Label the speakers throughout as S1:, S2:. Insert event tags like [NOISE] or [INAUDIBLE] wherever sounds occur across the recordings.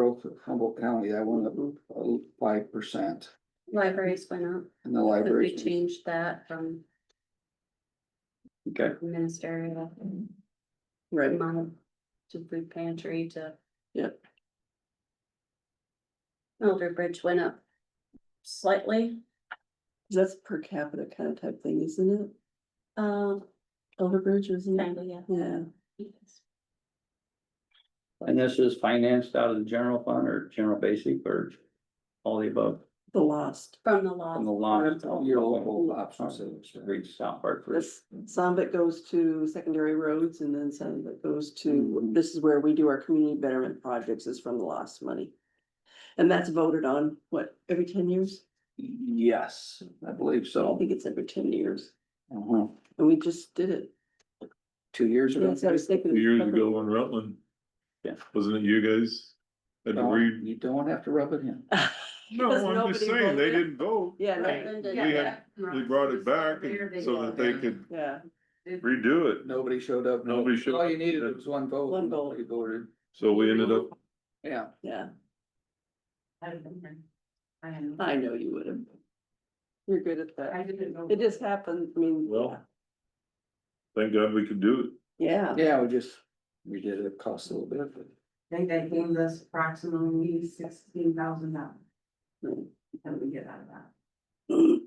S1: both Humboldt County, that went up five percent
S2: Libraries went up,
S1: and the
S2: 'cause we
S1: library.
S2: changed that from
S1: Okay,
S2: ministerial
S3: Right,
S2: amount to food pantry to.
S3: Yep.
S2: Elder Bridge went up slightly,
S3: that's per capita kind of type thing, isn't it?
S2: um,
S3: Elderbridge, isn't it?
S2: kinda, yeah.
S3: Yeah,
S4: And this is financed out of the general fund or general basic or all the above
S3: the lost.
S2: From the
S4: from the
S2: law,
S4: lots.
S1: your local option service.
S4: Read South Hartford.
S3: This, some of it goes to secondary roads and then some of it goes to, this is where we do our community betterment projects is from the lost money. And that's voted on, what, every ten years?
S1: Yes, I believe
S3: I
S1: so.
S3: think it's every ten years.
S1: Uh-huh.
S3: And we just did it.
S1: Two years ago.
S3: That's what I was thinking.
S5: Years ago on Rutland.
S4: Yeah.
S5: Wasn't it you guys? Had to
S1: No,
S5: read.
S1: You don't have to rub it in.
S3: Because
S5: No, I'm
S3: nobody
S5: just saying, they
S3: voted.
S5: didn't vote.
S3: Yeah,
S2: Right.
S3: no,
S2: Then
S5: We
S2: did-
S5: had, we brought it back and- so that they could
S3: yeah,
S5: redo it.
S1: Nobody showed up.
S5: Nobody showed
S1: All you
S5: up.
S1: needed was one vote.
S3: One
S1: and
S3: vote.
S1: nobody voted.
S5: So we ended up,
S1: Yeah,
S3: yeah,
S2: I don't know.
S3: I know you would have. You're good at that.
S2: didn't know.
S3: It just happened, I mean.
S5: Well. thank God we could do
S3: Yeah,
S1: yeah, we just, we did it cost a little bit, but.
S6: I think that gave us approximately sixteen thousand dollars.
S3: Hmm.
S6: That we get out of that.
S3: too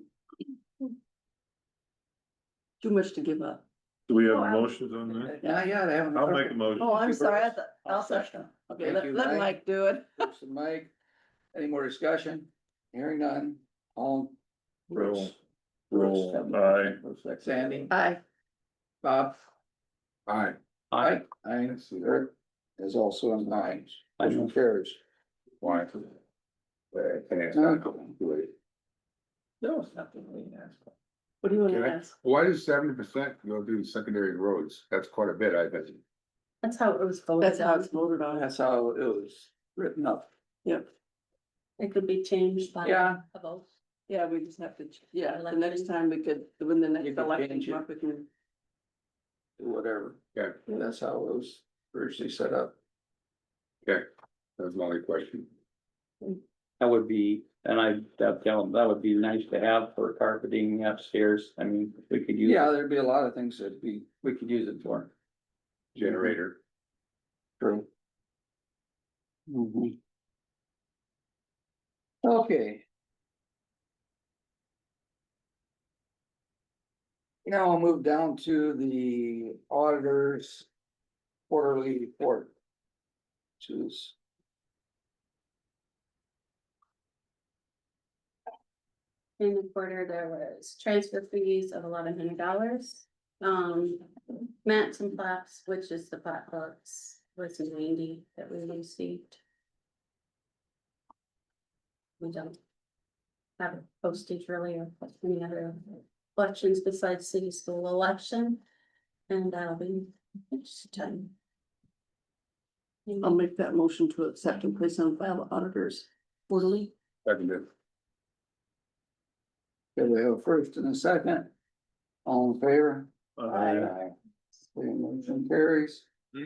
S3: much to give up.
S5: it. Do we have
S6: Oh, I-
S5: motions on that?
S1: Now, yeah, they haven't.
S5: Mm-hmm. I'll make a motion.
S3: Oh, I'm sorry, I thought,
S1: I'll
S3: I'll second.
S1: second.
S3: Okay,
S1: Thank
S3: let,
S1: you,
S3: let
S1: Mike.
S3: Mike do it.
S1: Bruce and Mike, any more discussion? Hearing none, all.
S5: Roll.
S1: Bruce,
S5: Roll, aye.
S1: Sandy,
S3: Aye.
S1: Bob,
S5: Aye.
S4: I,
S1: I, I, Eric is also an aye. Motion carries.
S5: Why?
S1: No, it's nothing. we can ask.
S3: What do you wanna
S7: Okay.
S3: ask?
S7: Why does seventy percent go to secondary roads? That's quite a bit, I bet.
S2: That's how it was voted
S3: That's how it's
S2: on,
S3: voted on.
S1: That's how it was written up.
S3: Yep.
S2: it could be changed by
S1: Yeah.
S2: a vote.
S3: Yeah, we just have to, ch- yeah, the next
S2: Election.
S3: time we could, when the
S1: You
S3: next
S1: can
S3: election,
S1: change it.
S3: come up, we can-
S1: whatever.
S7: Yeah.
S1: That's how it was originally set up.
S7: That's my only question.
S4: that would be, and I, that tell them, that would be nice to have for carpeting upstairs. I mean, we could use.
S1: Yeah, there'd be a lot of things that'd be, we could use it for.
S7: Generator.
S1: True. Mhm. Okay. Now I'll move down to the auditor's quarterly report. Choose.
S2: In the quarter, there was transfer fees of eleven hundred dollars. Um, mats and plaques, which is the pot hooks, was ninety that we received. We don't have postage really or any other elections besides city school election. And that'll be next time.
S3: I'll make that motion to accept and place on file auditors quarterly.
S7: Secondary.
S1: Okay, we have a first and a second. All in favor?
S5: Aye.
S1: Okay, motion carries.
S5: [CLEARS THROAT]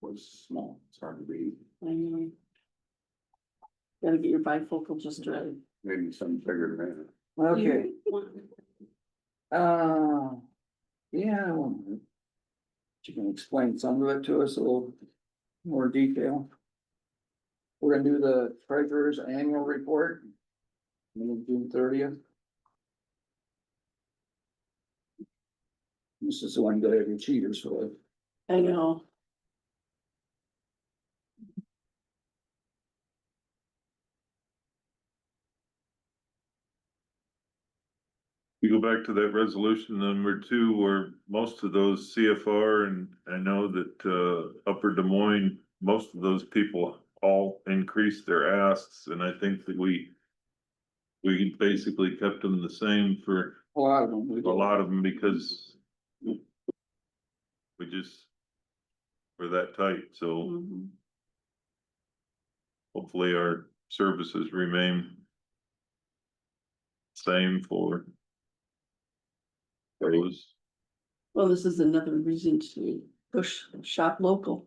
S7: Was small, it's hard to read,
S3: I know. Gotta get your bifocal just right.
S7: maybe some bigger than that.
S1: Okay.
S2: One.
S1: Uh, yeah, I wonder. if You can explain some of it to us a little more detail. We're gonna do the treasurer's annual report. on June thirtieth. This is the one that every cheaters for.
S3: I know.
S5: You go back to that resolution number two, where most of those CFR and I know that uh Upper Des Moines, most of those people all increased their asks, and I think that we we basically kept them the same for
S1: A lot of them. we
S5: a
S1: did.
S5: lot of them because we just were that tight, so
S3: Mhm.
S5: hopefully our services remain same for those.
S3: Well, this is another reason to push shop local.